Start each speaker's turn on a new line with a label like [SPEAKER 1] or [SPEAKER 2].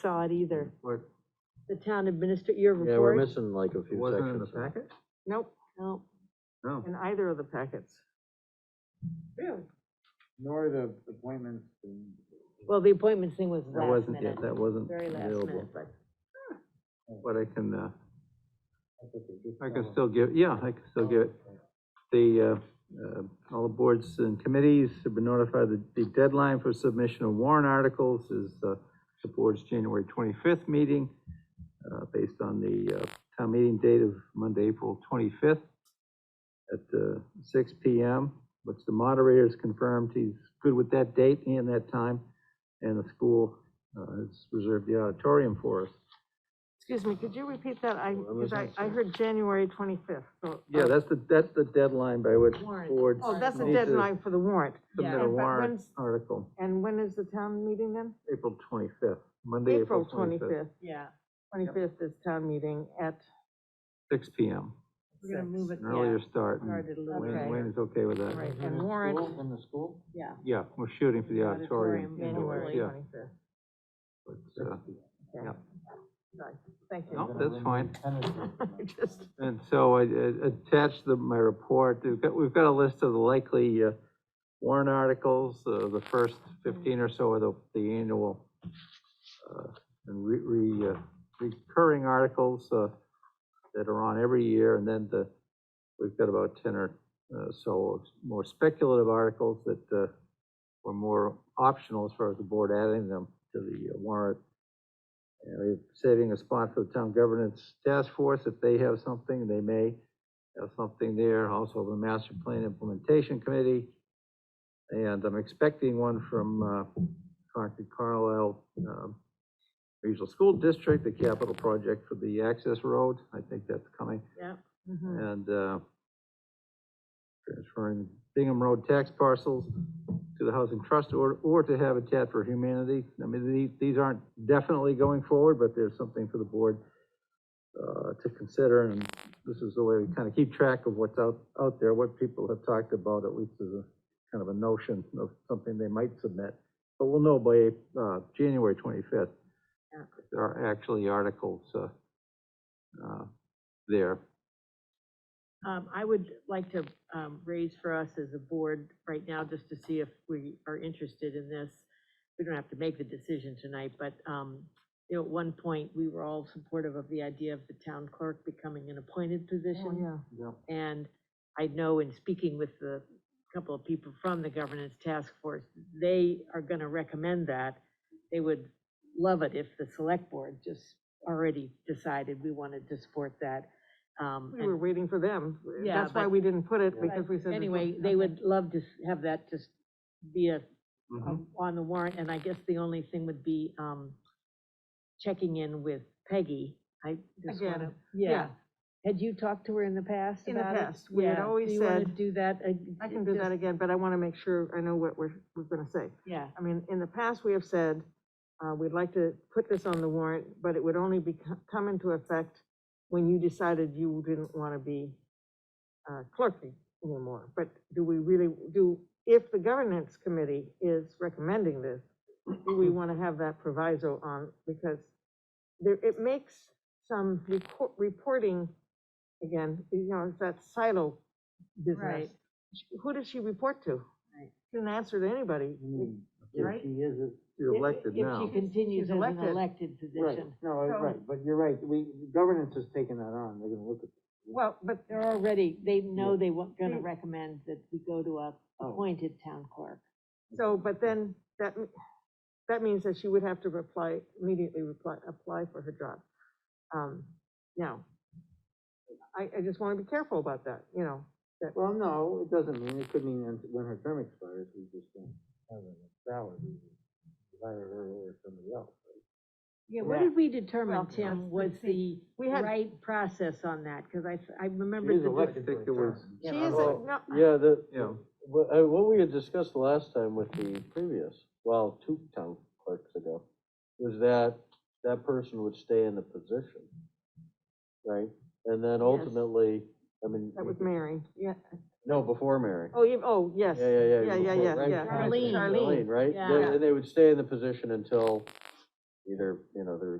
[SPEAKER 1] saw it either.
[SPEAKER 2] Or,
[SPEAKER 1] The town administrator, your
[SPEAKER 3] Yeah, we're
[SPEAKER 1] report?
[SPEAKER 3] missing like a few
[SPEAKER 2] wasn't in the
[SPEAKER 3] sections. here.
[SPEAKER 2] packet?
[SPEAKER 1] Nope, nope,
[SPEAKER 2] No.
[SPEAKER 1] in either of the packets. Really?
[SPEAKER 2] Nor the appointments and.
[SPEAKER 1] Well, the appointments thing was
[SPEAKER 2] That
[SPEAKER 1] last
[SPEAKER 2] wasn't, yeah,
[SPEAKER 1] minute,
[SPEAKER 2] that wasn't
[SPEAKER 1] very last minute,
[SPEAKER 2] available,
[SPEAKER 1] but.
[SPEAKER 2] but I can, uh, I
[SPEAKER 3] Oh.
[SPEAKER 2] can still give, yeah, I can still give it. The, uh, uh, all the boards and committees have been notified that the deadline for submission of warrant articles is, uh, the board's January twenty-fifth meeting, uh, based on the, uh, town meeting date of Monday, April twenty-fifth at, uh, six P M, which the moderator has confirmed he's good with that date and that time, and the school, uh, has reserved the auditorium for us.
[SPEAKER 1] Excuse me, could you repeat that? I,
[SPEAKER 3] Well, I
[SPEAKER 1] because I,
[SPEAKER 3] wasn't
[SPEAKER 1] I
[SPEAKER 3] sure.
[SPEAKER 1] heard January twenty-fifth, so.
[SPEAKER 2] Yeah, that's the, that's the deadline by which
[SPEAKER 4] Warrant.
[SPEAKER 2] boards.
[SPEAKER 1] Oh, that's the
[SPEAKER 2] need to
[SPEAKER 1] deadline for the warrant.
[SPEAKER 2] Submit
[SPEAKER 1] Yeah.
[SPEAKER 2] a
[SPEAKER 1] But
[SPEAKER 2] warrant
[SPEAKER 1] when's-
[SPEAKER 2] article,
[SPEAKER 1] And when is the town meeting then?
[SPEAKER 2] April twenty-fifth, Monday, April twenty-fifth,
[SPEAKER 4] Yeah,
[SPEAKER 1] Twenty-fifth is town meeting at,
[SPEAKER 2] six P M.
[SPEAKER 4] we're gonna move it,
[SPEAKER 2] An
[SPEAKER 4] yeah,
[SPEAKER 2] earlier start, and
[SPEAKER 4] started a little
[SPEAKER 1] Okay.
[SPEAKER 2] Wayne,
[SPEAKER 4] later,
[SPEAKER 2] Wayne is okay with that.
[SPEAKER 1] right, and warrant,
[SPEAKER 3] In the school?
[SPEAKER 4] yeah.
[SPEAKER 2] Yeah, we're shooting for the auditorium.
[SPEAKER 4] Auditorium,
[SPEAKER 2] indoors,
[SPEAKER 1] January
[SPEAKER 4] hopefully.
[SPEAKER 2] yeah.
[SPEAKER 1] twenty-fifth.
[SPEAKER 2] But, uh, Yeah.
[SPEAKER 1] Thank
[SPEAKER 2] No,
[SPEAKER 1] you.
[SPEAKER 2] that's fine.
[SPEAKER 1] I Just,
[SPEAKER 2] And so I I attached the, my report, we've got, we've got a list of the likely uh, warrant articles, uh, the first fifteen or so of the, the annual uh, and re, re, uh, recurring articles, uh, that are on every year, and then the, we've got about ten or uh, so of more speculative articles that, uh, were more optional as far as the board adding them to the warrant. And we're saving a spot for the town governance task force, if they have something, they may have something there, also the master plan implementation committee. And I'm expecting one from, uh, Concord Carlisle, um, regional school district, the capital project for the access road, I think that's coming
[SPEAKER 1] mhm.
[SPEAKER 2] and uh, transferring Bingham Road tax parcels to the Housing Trust or, or to Habitat for Humanity. I mean, these, these aren't definitely going forward, but there's something for the board uh, to consider, and this is the way we kind of keep track of what's out, out there, what people have talked about, at least as a kind of a notion of something they might submit. But we'll know by uh, January 25th.
[SPEAKER 1] Yeah.
[SPEAKER 2] if There are actually articles uh, uh, there.
[SPEAKER 4] Um, I would like to, um, raise for us as a board right now, just to see if we are interested in this. We don't have to make the decision tonight, but, um, you know, at one point, we were all supportive of the idea of the town clerk becoming an appointed
[SPEAKER 1] Oh,
[SPEAKER 4] position.
[SPEAKER 1] yeah.
[SPEAKER 2] Yeah.
[SPEAKER 4] And I know in speaking with the couple of people from the governance task force, they are gonna recommend that. They would love it if the select board just already decided we wanted to support that. Um,
[SPEAKER 1] We
[SPEAKER 4] and-
[SPEAKER 1] were waiting for them.
[SPEAKER 4] Yeah,
[SPEAKER 1] That's why
[SPEAKER 4] but-
[SPEAKER 1] we didn't put it,
[SPEAKER 2] Yeah.
[SPEAKER 1] because we said. there's no-
[SPEAKER 4] Anyway, they would love to s- have that just be a,
[SPEAKER 2] Mhm.
[SPEAKER 1] Mm-hmm.
[SPEAKER 4] um, on the warrant, and I guess the only thing would be, um, checking in with Peggy, I just
[SPEAKER 1] Again,
[SPEAKER 4] wanna.
[SPEAKER 1] yeah.
[SPEAKER 4] Had you talked to her in the past
[SPEAKER 1] In the
[SPEAKER 4] about it?
[SPEAKER 1] past, we had
[SPEAKER 4] Yeah.
[SPEAKER 1] always
[SPEAKER 4] Do you wanna
[SPEAKER 1] said-
[SPEAKER 4] do that?
[SPEAKER 1] I can do that again, but I want to make sure I know what we're, we're gonna say.
[SPEAKER 4] Yeah,
[SPEAKER 1] I mean, in the past, we have said, uh, we'd like to put this on the warrant, but it would only be, come into effect when you decided you didn't want to be, uh, clerk anymore. But do we really, do, if the governance committee is recommending this, do we want to have that proviso on, because there, it makes some reco- reporting, again, you know, it's that silo business.
[SPEAKER 4] Right.
[SPEAKER 1] Who does she report to?
[SPEAKER 4] Right. Mm-hmm.
[SPEAKER 1] She Didn't answer to anybody.
[SPEAKER 4] Right?
[SPEAKER 5] If she is, a-
[SPEAKER 2] You're
[SPEAKER 4] If-
[SPEAKER 2] elected now.
[SPEAKER 4] If she
[SPEAKER 1] She's
[SPEAKER 4] continues as an
[SPEAKER 1] elected.
[SPEAKER 4] elected
[SPEAKER 5] right,
[SPEAKER 4] position.
[SPEAKER 5] no, it's
[SPEAKER 1] So-
[SPEAKER 5] right, but you're right, we, governance has taken that on, they're gonna look at.
[SPEAKER 1] Well, but
[SPEAKER 4] They're already, they know
[SPEAKER 5] Yeah.
[SPEAKER 4] they weren't gonna
[SPEAKER 1] Mm.
[SPEAKER 4] recommend that we go to a
[SPEAKER 5] Oh.
[SPEAKER 4] appointed town clerk.
[SPEAKER 1] So, but then, that, m- that means that she would have to reply, immediately reply, apply for her job. Um, now, I, I just wanna be careful about that, you know,
[SPEAKER 5] Well, no, it doesn't mean, it could mean when- when her term expires, we just don't have her salary, we just hire her or somebody else. right?
[SPEAKER 4] Yeah, what
[SPEAKER 5] Yeah.
[SPEAKER 4] did we
[SPEAKER 1] Well,
[SPEAKER 4] determine, Tim,
[SPEAKER 1] that's-
[SPEAKER 4] was
[SPEAKER 1] that's
[SPEAKER 4] the
[SPEAKER 1] We had-
[SPEAKER 4] right process on that? Because I, I
[SPEAKER 5] She
[SPEAKER 4] remember.
[SPEAKER 5] is
[SPEAKER 4] the-
[SPEAKER 5] elected
[SPEAKER 2] think
[SPEAKER 5] for
[SPEAKER 2] it
[SPEAKER 5] a
[SPEAKER 2] was-
[SPEAKER 5] term.
[SPEAKER 1] she
[SPEAKER 5] Yeah,
[SPEAKER 1] isn't,
[SPEAKER 5] well,
[SPEAKER 1] no,
[SPEAKER 3] Yeah, the,
[SPEAKER 2] Yeah.
[SPEAKER 3] what, I- what we had discussed last time with the previous, well, two town clerks ago, was that that person would stay in the position, right? And then ultimately, I mean,
[SPEAKER 1] that was Mary, yeah,
[SPEAKER 3] no, before Mary.
[SPEAKER 1] oh, you, oh, yes.
[SPEAKER 3] Yeah, yeah, yeah.
[SPEAKER 1] Yeah, yeah,
[SPEAKER 3] before-
[SPEAKER 1] yeah,
[SPEAKER 3] right
[SPEAKER 1] yeah.
[SPEAKER 3] before
[SPEAKER 4] Charlene.
[SPEAKER 3] Charlene, right?
[SPEAKER 4] Yeah.
[SPEAKER 3] They- And they would stay in the position until either, you know, they're